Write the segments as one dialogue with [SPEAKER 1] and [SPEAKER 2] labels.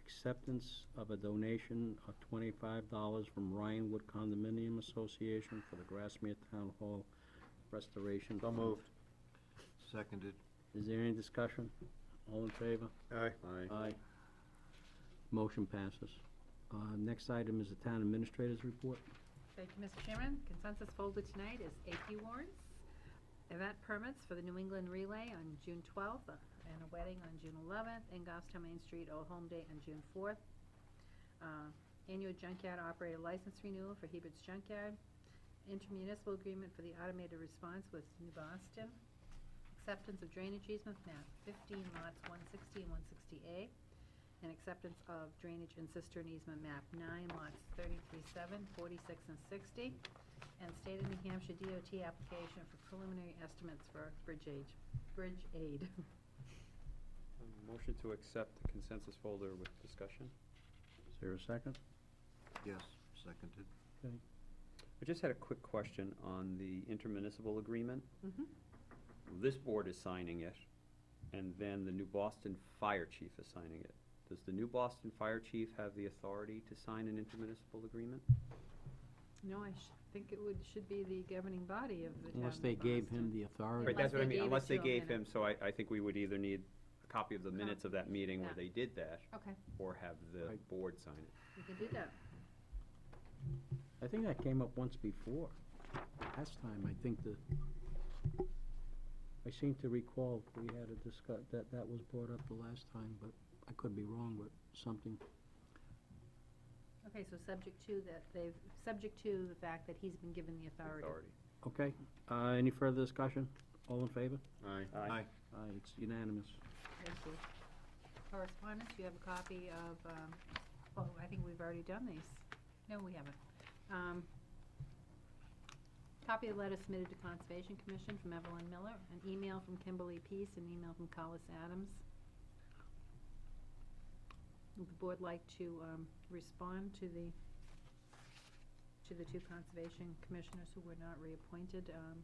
[SPEAKER 1] acceptance of a donation of twenty-five dollars from Ryanwood Condominium Association for the Grassmere Town Hall restoration.
[SPEAKER 2] So
[SPEAKER 1] fund.
[SPEAKER 2] moved. Seconded.
[SPEAKER 1] Is there any discussion? All in favor?
[SPEAKER 2] Aye.
[SPEAKER 1] Aye. Motion passes. Uh, next item is the town administrator's report.
[SPEAKER 3] Thank you, Mr. Chairman. Consensus folder tonight is AP warrants, event permits for the New England Relay on June 12th, and a wedding on June 11th, and Goffstown Main Street Old Home Day on June 4th. Uh, Annual junkyard operator license renewal for Hebert's Junkyard, intermunicipal agreement for the automated response with New Boston, acceptance of drainage easement map 15 lots 160 and 160A, and acceptance of drainage and cistern easement map nine lots 33, 7, 46, and sixty, and state of New Hampshire DOT application for preliminary estimates for bridge aid, bridge aid.
[SPEAKER 4] Motion to accept the consensus folder with discussion.
[SPEAKER 1] Is there a second?
[SPEAKER 2] Yes, seconded.
[SPEAKER 4] I just had a quick question on the intermunicipal agreement.
[SPEAKER 3] Mhm.
[SPEAKER 4] This board is signing it, and then the new Boston Fire Chief is signing it. Does the new Boston Fire Chief have the authority to sign an intermunicipal agreement?
[SPEAKER 3] No, I sh- think it would, should be the governing body of the town.
[SPEAKER 1] Unless they
[SPEAKER 3] of
[SPEAKER 1] gave him
[SPEAKER 3] Boston.
[SPEAKER 1] the authority.
[SPEAKER 4] Right, that's what I
[SPEAKER 3] Unless they
[SPEAKER 4] mean,
[SPEAKER 3] gave it
[SPEAKER 4] unless they
[SPEAKER 3] to him
[SPEAKER 4] gave
[SPEAKER 3] in a-
[SPEAKER 4] him, so I, I think we would either need a copy of the minutes of that meeting where
[SPEAKER 3] yeah.
[SPEAKER 4] they did that,
[SPEAKER 3] Okay,
[SPEAKER 4] or have the
[SPEAKER 1] Right.
[SPEAKER 4] board sign it.
[SPEAKER 3] we can do that.
[SPEAKER 1] I think that came up once before. Last time, I think the, I seem to recall we had a discuss, that, that was brought up the last time, but I could be wrong with something.
[SPEAKER 3] Okay, so subject to that, they've, subject to the fact that he's been given the authority.
[SPEAKER 1] Okay, uh, any further discussion? All in favor?
[SPEAKER 4] Aye.
[SPEAKER 2] Aye.
[SPEAKER 1] Aye, Uh, it's unanimous.
[SPEAKER 3] Thank you. Correspondence, you have a copy of, um, oh, I think we've already done these. No, we haven't. Um, Copy of letter submitted to Conservation Commission from Evelyn Miller, an email from Kimberly Peace, an email from Collis Adams. Would the board like to um, respond to the, to the two Conservation Commissioners who were not reappointed, um,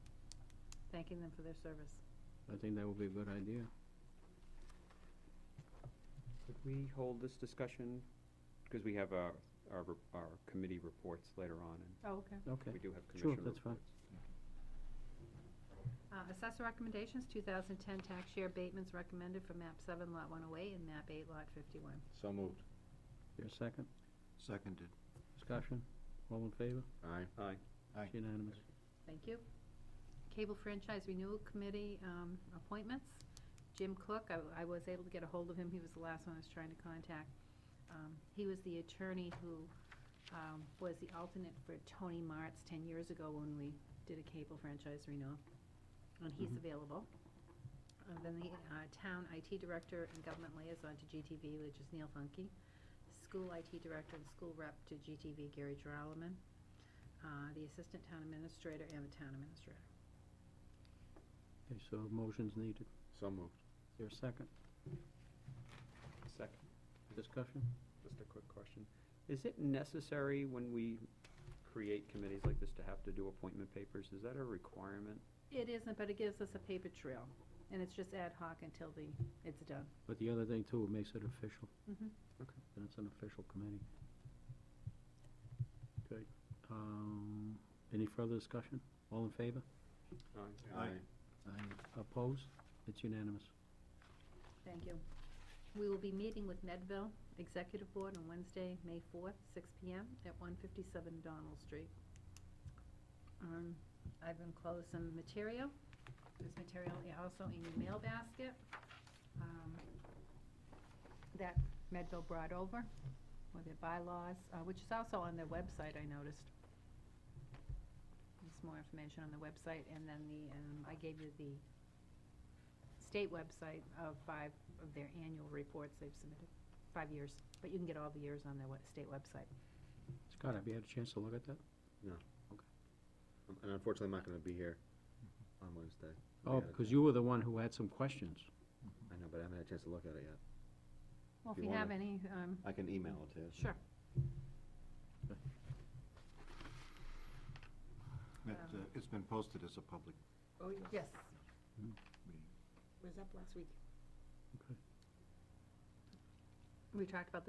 [SPEAKER 3] thanking them for their service?
[SPEAKER 1] I think that would be a good idea.
[SPEAKER 4] Could we hold this discussion, because we have our, our, re- our committee reports later on,
[SPEAKER 3] Oh, okay.
[SPEAKER 1] Okay,
[SPEAKER 4] and we do have
[SPEAKER 1] Sure,
[SPEAKER 4] commission
[SPEAKER 1] that's fine.
[SPEAKER 4] reports.
[SPEAKER 3] Uh, Assessor recommendations, 2010 tax year abatements recommended for MAP 7 Lot 108 and MAP 8 Lot 51.
[SPEAKER 2] So moved.
[SPEAKER 1] Your second,
[SPEAKER 2] Seconded.
[SPEAKER 1] discussion, all in favor?
[SPEAKER 2] Aye.
[SPEAKER 4] Aye.
[SPEAKER 2] Aye.
[SPEAKER 1] It's unanimous.
[SPEAKER 3] Thank you. Cable Franchise Renewal Committee um, appointments. Jim Cook, I- I was able to get a hold of him, he was the last one I was trying to contact. Um, He was the attorney who um, was the alternate for Tony Martz 10 years ago when we did a cable franchise renewal, and he's
[SPEAKER 1] Mhm.
[SPEAKER 3] available. Uh, Then the uh, Town IT Director and Government Liaison to GTV, which is Neil Funky. School IT Director and School Rep to GTV, Gary Drolleman uh, the Assistant Town Administrator and the Town Administrator.
[SPEAKER 1] Okay, so motion's needed.
[SPEAKER 2] So moved.
[SPEAKER 1] Your second,
[SPEAKER 4] Second.
[SPEAKER 1] discussion?
[SPEAKER 4] Just a quick question. Is it necessary when we create committees like this to have to do appointment papers? Is that a requirement?
[SPEAKER 3] It isn't, but it gives us a paper trail, and it's just ad hoc until the, it's done.
[SPEAKER 1] But the other thing too, it makes it official,
[SPEAKER 3] Mm-hmm.
[SPEAKER 1] and it's an official committee. Okay, um, any further discussion? All in favor?
[SPEAKER 2] Aye. Aye.
[SPEAKER 1] Aye. Opposed? It's unanimous.
[SPEAKER 3] Thank you. We will be meeting with Medville Executive Board on Wednesday, May 4th, six PM at 157 Donald Street. Um, I've enclosed some material. There's material i- also in your mail basket um, that Medville brought over with their bylaws, uh, which is also on their website, I noticed. There's more information on the website, and then the, um, I gave you the state website of five of their annual reports they've submitted, five years, but you can get all the years on their we- state website.
[SPEAKER 1] Scott, have you had a chance to look at that?
[SPEAKER 5] And unfortunately, I'm not gonna be here on Wednesday.
[SPEAKER 1] Oh, because you were the one who had some questions.
[SPEAKER 5] I know, but I haven't had a chance to look at it yet.
[SPEAKER 3] Well, if
[SPEAKER 5] If
[SPEAKER 3] you
[SPEAKER 5] you
[SPEAKER 3] have any, um,
[SPEAKER 5] I can email it to you.
[SPEAKER 3] sure.
[SPEAKER 2] It, uh, It's been posted as a public
[SPEAKER 3] Oh, yes.
[SPEAKER 2] meeting.
[SPEAKER 3] Was up last week.
[SPEAKER 1] Okay.
[SPEAKER 3] We talked about this